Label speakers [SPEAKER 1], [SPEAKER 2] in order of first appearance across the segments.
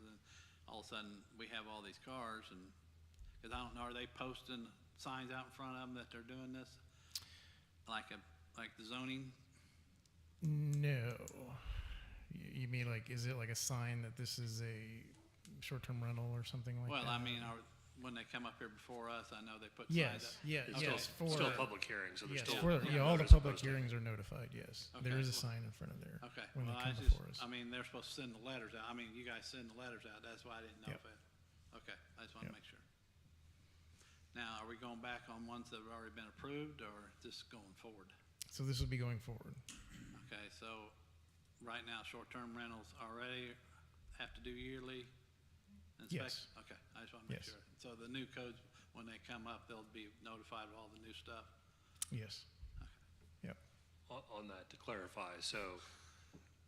[SPEAKER 1] of a sudden, we have all these cars and, because I don't know, are they posting signs out in front of them that they're doing this? Like a, like the zoning?
[SPEAKER 2] No. You, you mean like, is it like a sign that this is a short-term rental or something like
[SPEAKER 1] Well, I
[SPEAKER 2] that?
[SPEAKER 1] mean, are, when they come up here before us, I know they put signs up.
[SPEAKER 2] Yes, yeah,
[SPEAKER 3] It's
[SPEAKER 2] yes,
[SPEAKER 3] still,
[SPEAKER 2] for,
[SPEAKER 3] still a public hearing, so there's
[SPEAKER 2] yes,
[SPEAKER 3] still.
[SPEAKER 2] for,
[SPEAKER 3] you
[SPEAKER 2] yeah,
[SPEAKER 3] know,
[SPEAKER 2] all the
[SPEAKER 3] notice
[SPEAKER 2] public
[SPEAKER 3] posted.
[SPEAKER 2] hearings are notified, yes.
[SPEAKER 1] Okay,
[SPEAKER 2] There is a
[SPEAKER 1] well-
[SPEAKER 2] sign in front of there.
[SPEAKER 1] Okay,
[SPEAKER 2] When they
[SPEAKER 1] well, I
[SPEAKER 2] come
[SPEAKER 1] just,
[SPEAKER 2] before us.
[SPEAKER 1] I mean, they're supposed to send the letters out, I mean, you guys send the letters out, that's why I didn't know
[SPEAKER 2] Yep.
[SPEAKER 1] if it, okay, I just wanna
[SPEAKER 2] Yep.
[SPEAKER 1] make sure. Now, are we going back on ones that have already been approved, or just going forward?
[SPEAKER 2] So this will be going forward.
[SPEAKER 1] Okay, so, right now, short-term rentals already have to do yearly
[SPEAKER 2] Yes.
[SPEAKER 1] inspection? Okay, I just wanna make
[SPEAKER 2] Yes.
[SPEAKER 1] sure. So the new codes, when they come up, they'll be notified of all the new stuff?
[SPEAKER 2] Yes. Yep.
[SPEAKER 3] On, on that, to clarify, so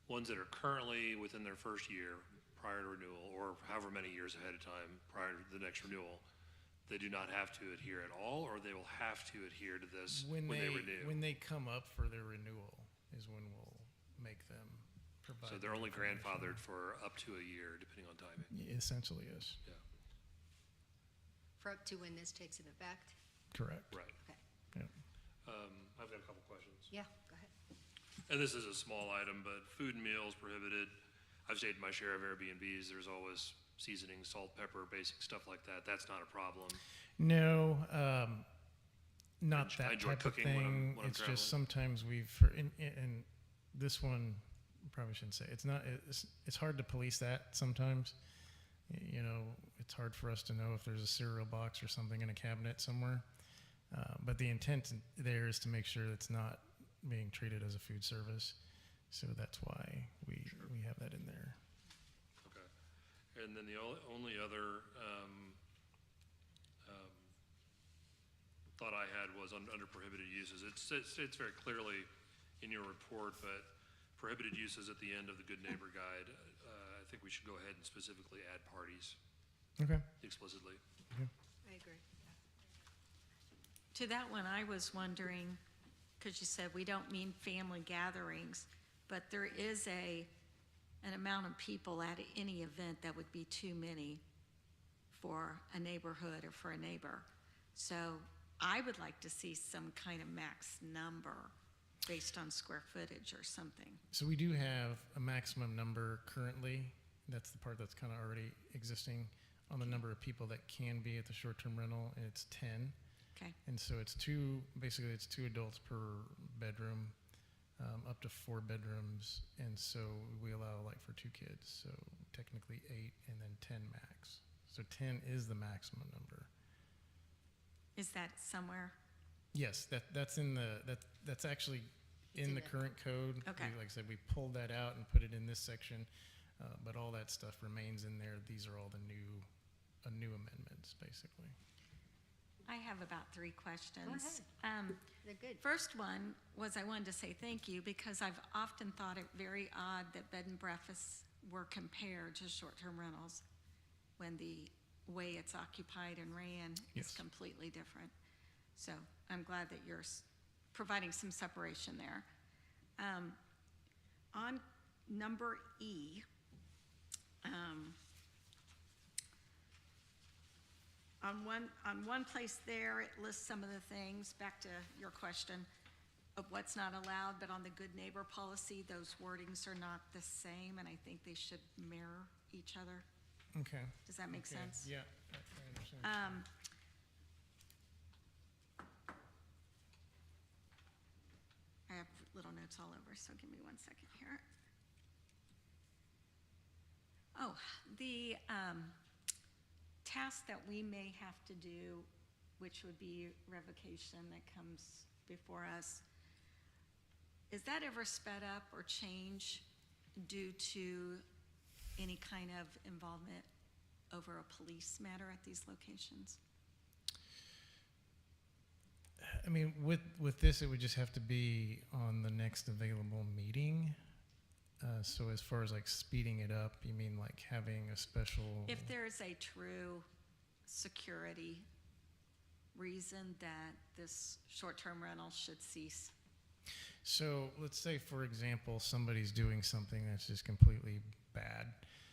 [SPEAKER 3] ones that are currently within their first year prior to renewal, or however many years ahead of time prior to the next renewal, they do not have to adhere at all, or they will have to adhere to this when they renew?
[SPEAKER 2] When they come up for their renewal is when we'll make them provide.
[SPEAKER 3] So they're
[SPEAKER 2] that
[SPEAKER 3] only
[SPEAKER 2] information.
[SPEAKER 3] grandfathered for up to a year, depending on timing.
[SPEAKER 2] Y- Essentially, yes,
[SPEAKER 3] Yeah,
[SPEAKER 4] For up to when this takes an effect?
[SPEAKER 2] correct.
[SPEAKER 3] right.
[SPEAKER 4] Okay,
[SPEAKER 2] Yep.
[SPEAKER 3] Um, I've got a couple questions.
[SPEAKER 4] yeah, go ahead.
[SPEAKER 3] And this is a small item, but food and meals prohibited. I've stayed in my share of Airbnbs. There's always seasoning, salt, pepper, basic stuff like that. That's not a problem.
[SPEAKER 2] No, um, not
[SPEAKER 3] I
[SPEAKER 2] that
[SPEAKER 3] enjoy
[SPEAKER 2] type of
[SPEAKER 3] cooking when I'm-
[SPEAKER 2] thing.
[SPEAKER 3] when I'm
[SPEAKER 2] It's
[SPEAKER 3] traveling.
[SPEAKER 2] just sometimes we've, for- and, and this one, probably shouldn't say, it's not, it's, it's hard to police that sometimes. Y- You know, it's hard for us to know if there's a cereal box or something in a cabinet somewhere. Uh, but the intent there is to make sure it's not being treated as a food service. So that's why we, we have that in there.
[SPEAKER 3] Okay. And then the o- only other um, um, thought I had was un- under prohibited uses. It states states very clearly in your report, but prohibited uses at the end of the Good Neighbor Guide. Uh, I think we should go ahead and specifically add parties
[SPEAKER 2] Okay.
[SPEAKER 3] explicitly.
[SPEAKER 4] I agree.
[SPEAKER 5] To that one, I was wondering, because you said we don't mean family gatherings, but there is a, an amount of people at any event that would be too many for a neighborhood or for a neighbor. So I would like to see some kind of max number based on square footage or something.
[SPEAKER 2] So we do have a maximum number currently. That's the part that's kind of already existing on the number of people that can be at the short-term rental, and it's ten.
[SPEAKER 5] Okay,
[SPEAKER 2] And so it's two, basically, it's two adults per bedroom, um, up to four bedrooms, and so we allow like for two kids, so technically eight, and then ten max. So ten is the maximum number.
[SPEAKER 5] is that somewhere?
[SPEAKER 2] Yes, that, that's in the, that, that's actually
[SPEAKER 4] It's
[SPEAKER 2] in
[SPEAKER 4] in
[SPEAKER 2] the
[SPEAKER 4] the-
[SPEAKER 2] current code. We-
[SPEAKER 5] Okay.
[SPEAKER 2] Like I said, we pulled that out and put it in this section, uh, but all that stuff remains in there. These are all the new, uh, new amendments, basically.
[SPEAKER 5] I have about three questions. Um,
[SPEAKER 4] They're good.
[SPEAKER 5] First one was I wanted to say thank you because I've often thought it very odd that bed and breakfasts were compared to short-term rentals when the way it's occupied and ran is
[SPEAKER 2] Yes.
[SPEAKER 5] completely different. So I'm glad that you're s- providing some separation there. Um, On number E, um, on one, on one place there, it lists some of the things, back to your question, of what's not allowed, but on the good neighbor policy, those wordings are not the same, and I think they should mirror each other.
[SPEAKER 2] Okay.
[SPEAKER 5] Does that make
[SPEAKER 2] Okay,
[SPEAKER 5] sense?
[SPEAKER 2] Yeah, I- I understand.
[SPEAKER 5] Um, I have little notes all over, so give me one second here. Oh, the, um, task that we may have to do, which would be revocation that comes before us, is that ever sped up or changed due to any kind of involvement over a police matter at these locations?
[SPEAKER 2] I mean, with, with this, it would just have to be on the next available meeting. Uh, so as far as like speeding it up, you mean like having a special?
[SPEAKER 5] If there is a true security reason that this short-term rental should cease,
[SPEAKER 2] So let's say, for example, somebody's doing something that's just completely bad. Um,